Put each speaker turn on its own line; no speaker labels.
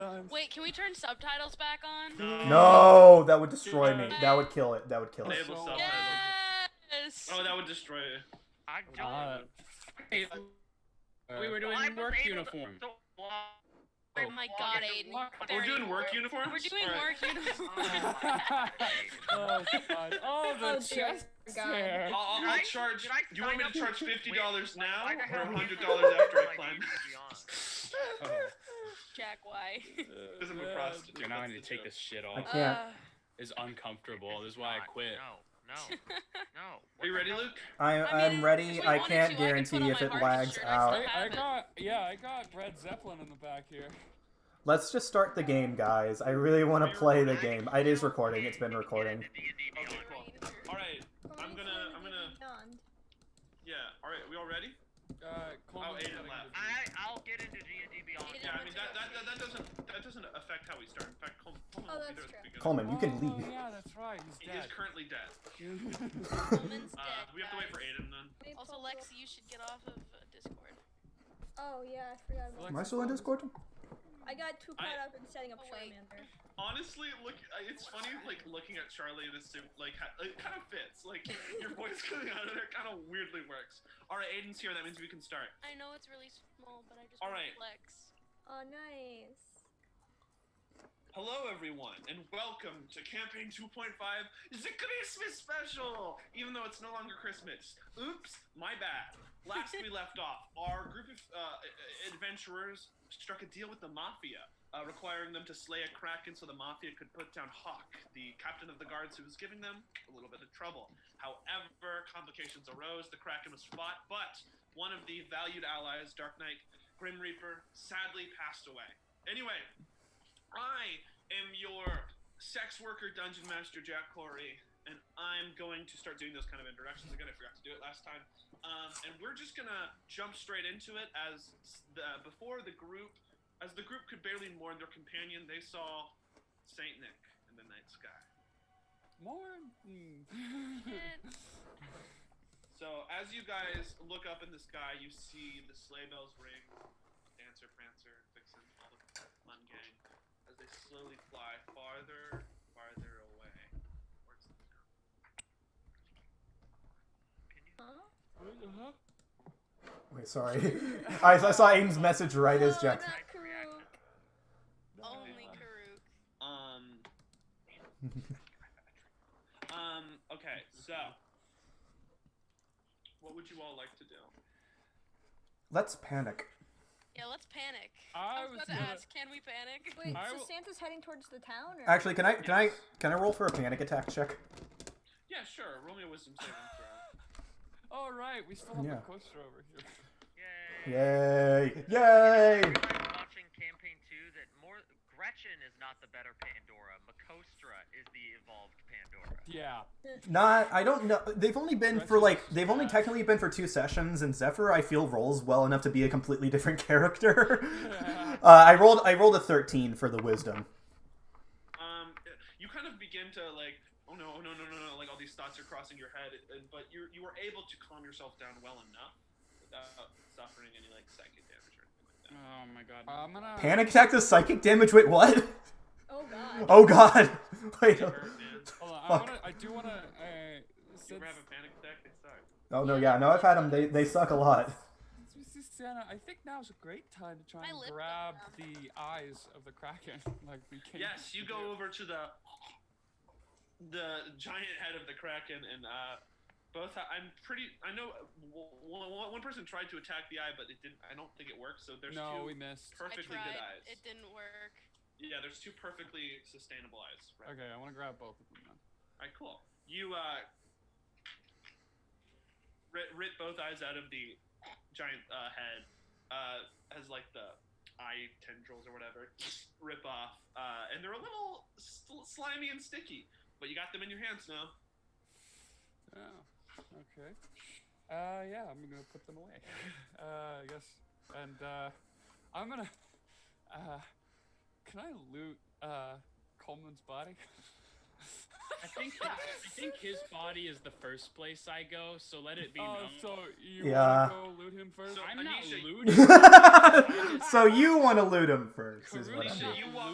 Wait, can we turn subtitles back on?
No, that would destroy me. That would kill it. That would kill it.
Enable
so-
subtitles.
Yes.
Oh, that would destroy it.
I
Uh,
don't. Hey, we were doing work uniform.
Oh my god, Aiden.
We're
Very
doing work uniforms.
We're doing
All right.
work uniforms.
oh, God. Oh, the
Oh, dear
chest
God.
hair.
I'll, I'll-
Did
I'll
I-
charge.
did I
You want me to
sign
charge fifty dollars now
Wait,
or
why
hundred
the
dollars
hell-
after I
Like,
climb?
you should be honest.
Jack, why?
Because I'm a prostitute.
Dude, now I
that's
need
the
to take
joke.
this shit
I
off.
can't.
It's uncomfortable. This is why I
Not-
quit.
No, no, no.
Are you ready, Luke?
I,
I mean,
I'm
if
ready.
we
I
wanted
can't
to, I could put on
guarantee if
my
it
hardest
lags
shirt. I still
out.
have-
I, I
it.
got, yeah, I got Brad Zeppelin in the back here.
Let's just start the game, guys. I really want to play the game. It is recording. It's been recording.
Okay, cool. All right. I'm gonna. I'm gonna. Yeah. All right. We all ready?
Uh, Coleman's
Aiden
gotta
left.
get a-
I I'll get into D&D Beyond.
Aiden,
Yeah. I mean that that, that, that doesn't that doesn't affect how we start. In fact, Coleman. Coleman
Oh,
will be
that's
there to
true.
begin.
Um,
Coleman, you can
Oh,
leave.
Yeah, that's right.
He
He's
is
dead.
currently dead.
Coleman's
Uh,
dead,
we have to wait for
guys.
Aiden then.
Also, Lexi, you should get off of uh, Discord.
Oh yeah, I forgot about.
Am I still in Discord?
I got too
I-
caught up in setting up
Oh, wait.
Charmander.
Honestly, look, I- it's funny like looking at Charlie in a suit. Like ha- it kind of fits. Like your voice coming out of there kind of weirdly works. All right, Aiden's here. That means we can start.
I know it's really small, but I just
All
want
right.
to flex.
Oh nice.
Hello, everyone, and welcome to Campaign 2.5, the Christmas special! Even though it's no longer Christmas. Oops, my bad. Last we left off, our group of uh, adventurers struck a deal with the Mafia, uh, requiring them to slay a Kraken so the Mafia could put down Hawk, the captain of the guards who was giving them a little bit of trouble. However, complications arose, the Kraken was fought, but one of the valued allies, Dark Knight Grim Reaper, sadly passed away. Anyway, I am your sex worker dungeon master, Jack Corey, and I'm going to start doing those kind of introductions again. I forgot to do it last time. Um, and we're just gonna jump straight into it as the before the group, as the group could barely mourn their companion, they saw Saint Nick in the night sky.
Morn.
Shit.
So as you guys look up in the sky, you see the sleigh bells ring. Dancer, Prancer, Vixen, all the fun gang, as they slowly fly farther, farther away towards the town.
Huh?
Uh-huh.
Wait, sorry. I, I saw Aiden's message right as
Oh,
Jack.
not Karuk.
Only Karuk.
Um. um. Okay. So, what would you all like to do?
Let's panic.
Yeah, let's panic.
I
I was
was
about to
gonna-
ask, can we panic?
Wait,
I
so
will-
Santa's heading towards the town, or?
Actually, can I can I can I roll for a panic attack check?
Yeah, sure. Roll me a wisdom saving throw.
All right, we still have
Yeah.
a coaster over here.
Yay.
Yay!
I
Yay!
realized watching campaign two that more Gretchen is not the better Pandora. Makostra is the evolved Pandora.
Yeah.
Not I don't know. They've only been for like they've only
Yeah.
technically been for two sessions, and Zephyr I feel rolls well enough to be a completely different character. uh, I rolled I rolled a thirteen for the wisdom.
Um, you kind of begin to like, oh no, oh no, no, no, no. Like all these thoughts are crossing your head, and, but you you were able to calm yourself down well enough without suffering any like psychic damage or anything like that.
Oh my god.
I'm gonna.
Panic attack does psychic damage. Wait, what?
Oh god.
Oh god! Wait.
It hurt, man.
Hold on, I,
Fuck.
wanna, I do wanna. Uh,
You
since,
ever have a panic attack? It sucks.
Oh no, yeah, no, I've had them. They they suck a lot.
since we see Santa, I think now's a great time to try
My
and
lip
grab
balm.
the eyes of the kraken, like we can.
Yes, you go over to the the giant head of the kraken, and uh, both. I'm pretty. I know w- w- one person tried to attack the eye, but it didn't. I don't think it worked. So there's
No, we
two
missed.
I
perfectly
tried.
good eyes.
It didn't work.
yeah, there's two perfectly sustainable eyes. Right.
Okay, I want to grab both of them. Then.
All right, cool. You uh, rit, rit both eyes out of the giant uh, head. Uh, has like the eye tendrils or whatever rip off, uh, and they're a little sl- slimy and sticky. But you got them in your hands now.
Oh, okay. Uh, yeah, I'm gonna put them away. Uh, I guess. And uh, I'm gonna. Uh, can I loot uh Coleman's body?
I think I think his body is the first place I go, so let it be
Oh,
known.
so you wanna
Yeah.
go loot him first?
So
I'm not
Anisha,
looting.
so you want to loot him first, is what
Karuk
I'm
is
doing.
You walk